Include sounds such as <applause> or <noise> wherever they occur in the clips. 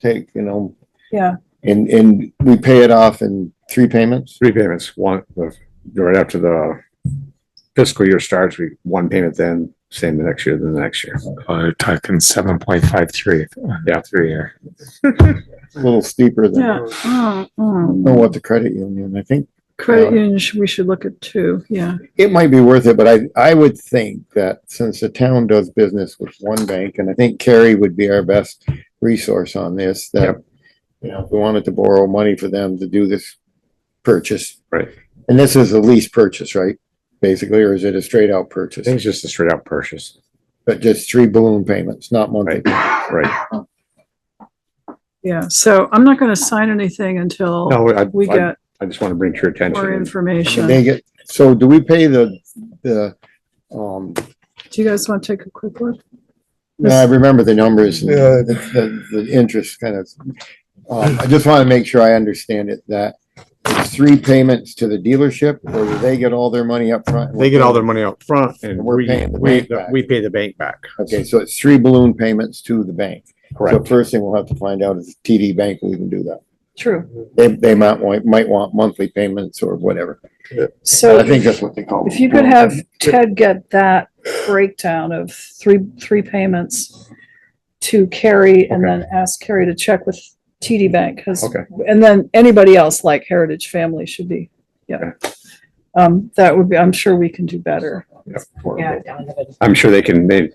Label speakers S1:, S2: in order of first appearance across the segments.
S1: take, you know,
S2: Yeah,
S1: and, and we pay it off in three payments?
S3: Three payments, one, the- right after the fiscal year starts, we, one payment then, same the next year, then the next year.
S4: Oh, you're talking seven point five three.
S3: Yeah.
S4: three year.
S1: A little steeper than, I
S2: yeah. Mm,
S1: don't
S2: mm.
S1: know what the credit union, I think
S2: Credit union, sh- we should look at too, yeah.
S1: it might be worth it, but I, I would think that since the town does business with one bank, and I think Carrie would be our best resource on this, that, you know, if we wanted to borrow money for them to do this purchase.
S3: Right.
S1: And this is a lease purchase, right? Basically, or is it a straight out
S3: I think
S1: purchase?
S3: it's just a straight out purchase,
S1: But just three balloon payments, not monthly.
S3: Right. right?
S2: Yeah, so I'm not gonna sign anything until
S3: No, I,
S2: we
S3: I-
S2: get
S3: I just want to bring to your
S2: more
S3: attention.
S1: And
S2: information.
S1: They get, so do we pay the, the, um,
S2: Do you guys want to take a quick look?
S1: no, I remember the numbers, the, the, the interest kind of. Um, I just want to make sure I understand it, that it's three payments to the dealership, or do they get all their money up front?
S3: They get all their money up front and
S1: We're
S3: we,
S1: paying the
S3: we,
S1: bank back.
S3: we pay the bank back.
S1: Okay, so it's three balloon payments to the bank. So
S3: Correct.
S1: first thing we'll have to find out is TD Bank will even do that.
S2: True.
S1: They, they might want, might want monthly payments or whatever.
S2: So
S1: I think that's what they call. them.
S2: if you could have Ted get that breakdown of three, three payments to Carrie and then ask Carrie to check with TD Bank, because,
S3: Okay.
S2: and then anybody else like Heritage Family should be, yeah. Um, that would be, I'm sure we can do better.
S5: Yeah, down to the-
S3: I'm sure they can, they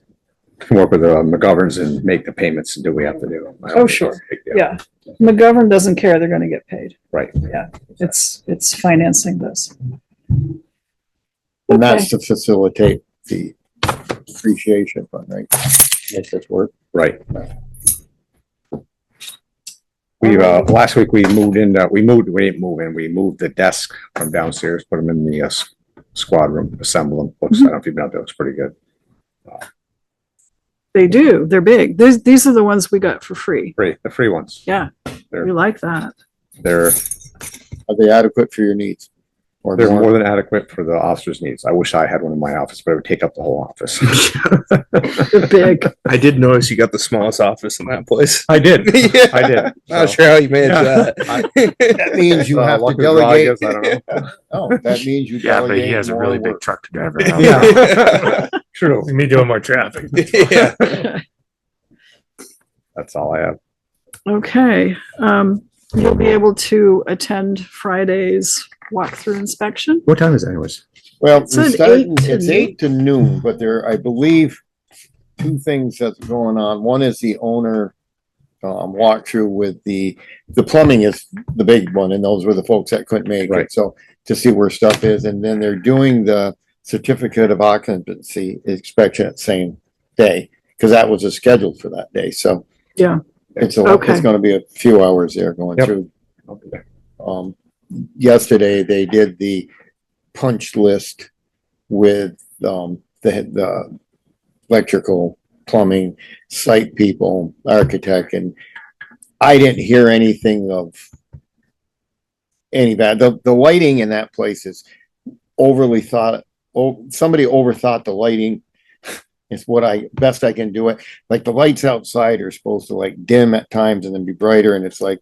S3: can work with the McGoverns and make the payments and do what we have to do. I don't
S2: Oh,
S3: think
S2: sure.
S3: it's a big deal.
S2: Yeah, McGovern doesn't care, they're gonna get paid.
S3: Right.
S2: Yeah, it's, it's financing this.
S1: And that's to facilitate the appreciation fund, right? Make this work.
S3: Right. We, uh, last week we moved in, uh, we moved, we didn't move in, we moved the desk from downstairs, put them in the, uh, s- squad room, assemble them.
S1: Mm-hmm.
S3: Looks, I don't know if you've been out there, looks pretty good.
S2: They do, they're big. These, these are the ones we got for free.
S3: Free, the free ones.
S2: Yeah, we
S3: They're-
S2: like that.
S3: They're,
S1: Are they adequate for your needs? Or
S3: they're
S1: more?
S3: more than adequate for the officer's needs. I wish I had one in my office, but it would take up the whole office.
S2: They're big. <laughs>
S6: I did notice you got the smallest office in that place.
S3: I did,
S6: <laughs> yeah,
S3: <laughs>
S1: <laughs>
S3: I did.
S6: Not
S3: So-
S6: sure how you managed
S3: Yeah.
S6: that. <laughs>
S1: That means
S4: <laughs>
S1: you
S3: Uh,
S1: have to
S3: luck of the draw, I
S1: delegate.
S3: guess, I don't know.
S1: Oh, that means you
S4: Yeah, but he
S1: delegate
S4: has a
S1: more
S4: really big
S1: work.
S4: truck to <laughs> drive around.
S6: Yeah.
S3: Yeah. True.
S4: Me doing more traffic.
S6: yeah.
S3: That's all I have. <laughs>
S2: Okay, um, you'll be able to attend Friday's walkthrough inspection?
S3: What time is it anyways?
S1: Well,
S2: It's an
S1: we started-
S2: eight to
S1: it's eight to noon, but there, I believe, two things that's going on. One is the owner um, walkthrough with the, the plumbing is the big one, and those were the folks that couldn't make it.
S3: Right.
S1: So to see where stuff is, and then they're doing the certificate of occupancy inspection at same day, because that was scheduled for that day, so.
S2: Yeah.
S1: It's a,
S2: Okay.
S1: it's gonna be a few hours there going
S3: Yep.
S1: through um, yesterday, they did the punch list with, um, the, the electrical, plumbing, site people, architect, and I didn't hear anything of any bad, the, the lighting in that place is overly thought, oh, somebody overthought the lighting. <laughs> It's what I, best I can do it, like the lights outside are supposed to like dim at times and then be brighter, and it's like,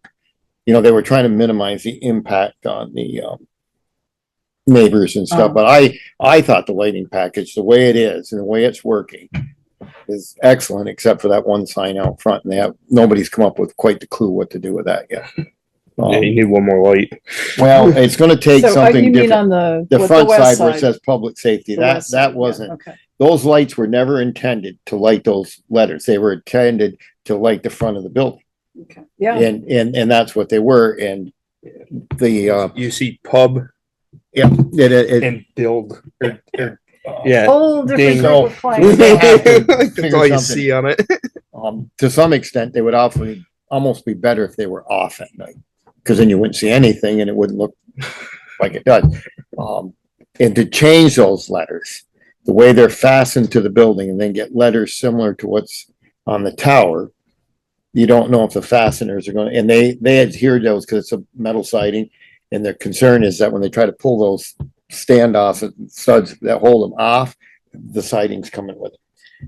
S1: you know, they were trying to minimize the impact on the, um, neighbors and stuff,
S2: Oh.
S1: but I, I thought the lighting package, the way it is and the way it's working is excellent, except for that one sign out front, and they have, nobody's come up with quite the clue what to do with that yet. Um,
S6: Yeah, you need one more light.
S1: well, it's gonna take
S2: So, uh, you
S1: something
S2: mean
S1: different.
S2: On the.
S1: The
S2: what,
S1: front
S2: west
S1: side where it says public safety,
S2: The
S1: that,
S2: west side,
S1: that
S2: yeah,
S1: wasn't,
S2: Okay,
S1: those lights were never intended to light those letters. They were intended to light the front of the building.
S2: okay, yeah,
S1: And, and, and that's what they were and the, uh,
S6: You see pub
S1: yeah, it, it. it-
S6: and build.
S3: uh,
S6: Yeah.
S2: whole different
S6: Ding.
S2: group
S1: <laughs>
S2: of clients.
S1: they have to
S6: <laughs> That's
S1: figure
S6: all you
S1: something.
S6: see on it.
S1: Um, to some extent, they would awfully, almost be better if they were off at night. Cause then you wouldn't see anything and it wouldn't look like it does. Um, and to change those letters, the way they're fastened to the building and then get letters similar to what's on the tower. You don't know if the fasteners are gonna, and they, they adhere to those because it's a metal siding. And their concern is that when they try to pull those standoffs and studs that hold them off, the siding's coming with it.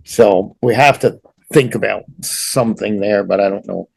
S1: So we have to think about something there, but I don't know